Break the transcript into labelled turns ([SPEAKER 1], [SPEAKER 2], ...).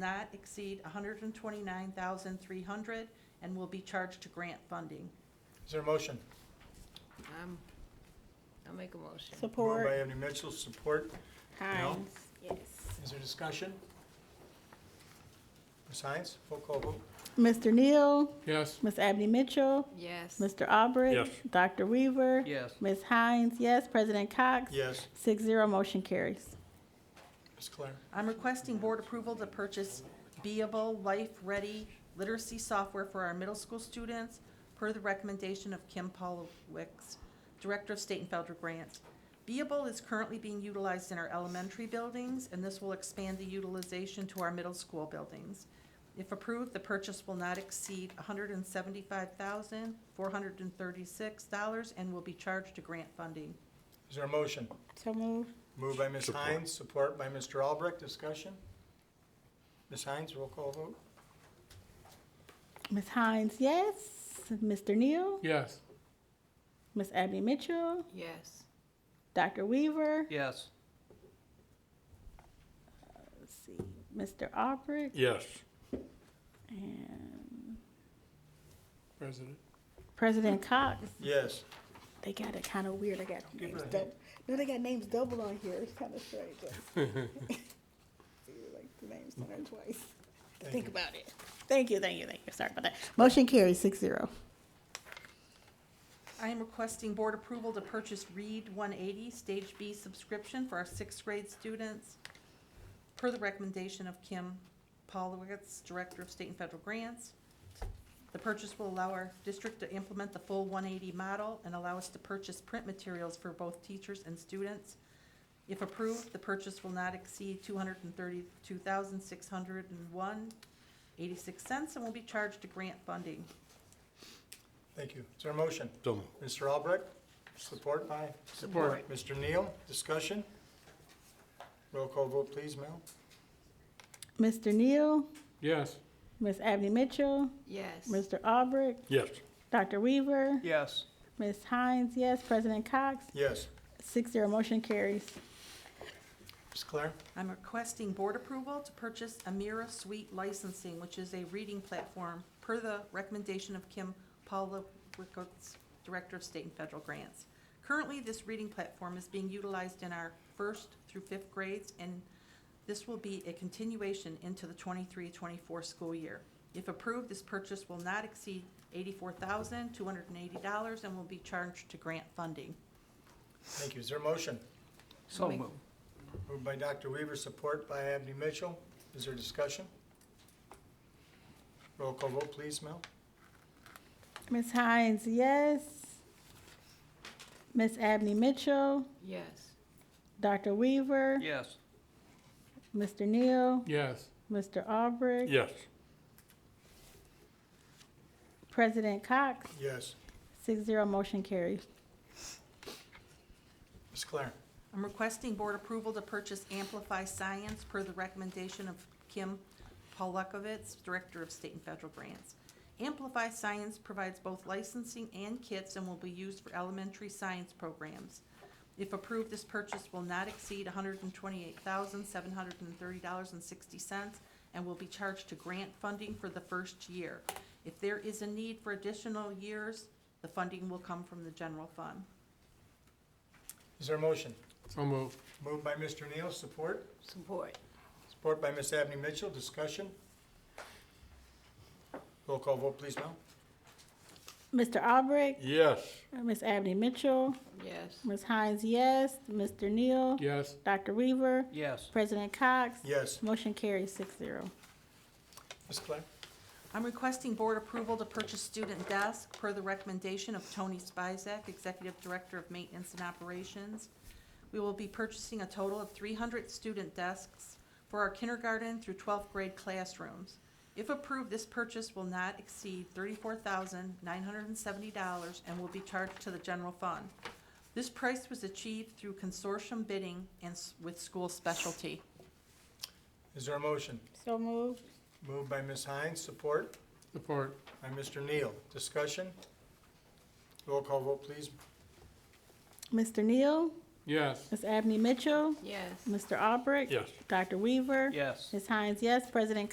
[SPEAKER 1] not exceed hundred and twenty-nine thousand three hundred and will be charged to grant funding.
[SPEAKER 2] Is there a motion?
[SPEAKER 3] Um, I'll make a motion.
[SPEAKER 2] Moved by
[SPEAKER 4] Support.
[SPEAKER 2] Ebony Mitchell, support.
[SPEAKER 4] Hines.
[SPEAKER 3] Yes.
[SPEAKER 2] Is there discussion? Ms. Hines, full call vote.
[SPEAKER 4] Mr. Neal,
[SPEAKER 5] yes,
[SPEAKER 4] Ms. Abney Mitchell,
[SPEAKER 3] Yes.
[SPEAKER 4] Mr. Albrecht.
[SPEAKER 6] Yes.
[SPEAKER 4] Dr. Weaver.
[SPEAKER 7] yes,
[SPEAKER 4] Ms. Hines, yes. President Cox.
[SPEAKER 2] Yes.
[SPEAKER 4] Six zero, motion carries.
[SPEAKER 2] Ms. Claire?
[SPEAKER 1] I'm requesting board approval to purchase Beable Life Ready literacy software for our middle school students per the recommendation of Kim Polowicz, Director of State and Federal Grants. Beable is currently being utilized in our elementary buildings, and this will expand the utilization to our middle school buildings. If approved, the purchase will not exceed hundred and seventy-five thousand, four hundred and thirty-six dollars and will be charged to grant funding.
[SPEAKER 2] Is there a motion?
[SPEAKER 4] So move.
[SPEAKER 2] Moved by Ms.
[SPEAKER 6] Support.
[SPEAKER 2] Hines, support by Mr. Albrecht. Discussion? Ms. Hines, roll call vote.
[SPEAKER 4] Ms. Hines, yes. Mr. Neal,
[SPEAKER 5] yes,
[SPEAKER 4] Ms. Abney Mitchell,
[SPEAKER 3] Yes.
[SPEAKER 4] Dr. Weaver.
[SPEAKER 7] yes,
[SPEAKER 4] Let's see, Mr. Albrecht
[SPEAKER 6] yes,
[SPEAKER 4] and
[SPEAKER 5] President.
[SPEAKER 4] President Cox.
[SPEAKER 2] Yes.
[SPEAKER 4] They got it kind of weird. I got
[SPEAKER 2] give
[SPEAKER 4] names
[SPEAKER 2] her a
[SPEAKER 4] double. No, they got names double on here. It's kind of strange. See, like the names done there twice.
[SPEAKER 2] Thank
[SPEAKER 4] Think
[SPEAKER 2] you.
[SPEAKER 4] about it. Thank you, thank you, thank you. Sorry about that. Motion carries six zero.
[SPEAKER 1] I am requesting board approval to purchase Read 180 Stage B subscription for our sixth grade students per the recommendation of Kim Paulowitz, Director of State and Federal Grants. The purchase will allow our district to implement the full 180 model and allow us to purchase print materials for both teachers and students. If approved, the purchase will not exceed 232,601.86 cents and will be charged to grant funding.
[SPEAKER 2] Thank you. Is there a motion?
[SPEAKER 6] so moved.
[SPEAKER 2] Mr. Albrecht, support by?
[SPEAKER 5] Support.
[SPEAKER 2] Mr. Neal, discussion? Roll call vote, please, Mel.
[SPEAKER 4] Mr. Neal,
[SPEAKER 5] yes,
[SPEAKER 4] Miss Abney Mitchell,
[SPEAKER 3] Yes.
[SPEAKER 4] Mr. Albrecht,
[SPEAKER 6] yes,
[SPEAKER 4] Dr. Weaver,
[SPEAKER 7] yes.
[SPEAKER 4] Miss Hines, yes. President Cox,
[SPEAKER 2] Yes.
[SPEAKER 4] six zero. Motion carries.
[SPEAKER 2] Ms. Claire?
[SPEAKER 1] I'm requesting board approval to purchase Amira Suite Licensing, which is a reading platform, per the recommendation of Kim Paula Wickowitz, Director of State and Federal Grants. Currently, this reading platform is being utilized in our first through fifth grades, and this will be a continuation into the 23-24 school year. If approved, this purchase will not exceed eighty-four thousand, two hundred and eighty dollars and will be charged to grant funding.
[SPEAKER 2] Thank you. Is there a motion?
[SPEAKER 7] So
[SPEAKER 3] make-
[SPEAKER 7] moved,
[SPEAKER 2] Moved by Dr. Weaver, support by Abney Mitchell. Is there discussion? Roll call vote, please, Mel.
[SPEAKER 4] Miss Hines, yes. Miss Abney Mitchell,
[SPEAKER 3] Yes.
[SPEAKER 4] Dr. Weaver,
[SPEAKER 7] yes,
[SPEAKER 4] Mr. Neal,
[SPEAKER 5] yes,
[SPEAKER 4] Mr. Albrecht,
[SPEAKER 6] yes,
[SPEAKER 4] President Cox,
[SPEAKER 2] Yes.
[SPEAKER 4] six zero. Motion carries.
[SPEAKER 2] Ms. Claire?
[SPEAKER 1] I'm requesting board approval to purchase Amplify Science per the recommendation of Kim Polukovitz, Director of State and Federal Grants. Amplify Science provides both licensing and kits and will be used for elementary science programs. If approved, this purchase will not exceed hundred and twenty-eight thousand, seven hundred and thirty dollars and sixty cents and will be charged to grant funding for the first year. If there is a need for additional years, the funding will come from the general fund.
[SPEAKER 2] Is there a motion?
[SPEAKER 5] so moved,
[SPEAKER 2] Moved by Mr. Neal, support.
[SPEAKER 3] Support.
[SPEAKER 2] Support by Ms. Abney Mitchell. Discussion? Roll call vote, please, Mel.
[SPEAKER 4] Mr. Albrecht,
[SPEAKER 6] yes,
[SPEAKER 4] Miss Abney Mitchell,
[SPEAKER 3] Yes.
[SPEAKER 4] Miss Hines, yes. Mr. Neal,
[SPEAKER 5] yes,
[SPEAKER 4] Dr. Weaver,
[SPEAKER 7] yes,
[SPEAKER 4] President Cox,
[SPEAKER 2] Yes.
[SPEAKER 4] motion carries six zero.
[SPEAKER 2] Ms. Claire?
[SPEAKER 1] I'm requesting board approval to purchase student desk per the recommendation of Tony Spizak, Executive Director of Maintenance and Operations. We will be purchasing a total of three hundred student desks for our kindergarten through twelfth grade classrooms. If approved, this purchase will not exceed thirty-four thousand nine hundred and seventy dollars and will be charged to the general fund. This price was achieved through consortium bidding and s- with school specialty.
[SPEAKER 2] Is there a motion?
[SPEAKER 4] So moved.
[SPEAKER 2] Moved by Ms. Hines, support
[SPEAKER 5] support,
[SPEAKER 2] by Mr. Neal. Discussion? Roll call vote, please.
[SPEAKER 4] Mr. Neal,
[SPEAKER 5] yes,
[SPEAKER 4] Miss Abney Mitchell,
[SPEAKER 3] Yes.
[SPEAKER 4] Mr. Albrecht,
[SPEAKER 6] yes.
[SPEAKER 4] Dr. Weaver,
[SPEAKER 7] yes.
[SPEAKER 4] Miss Hines, yes. President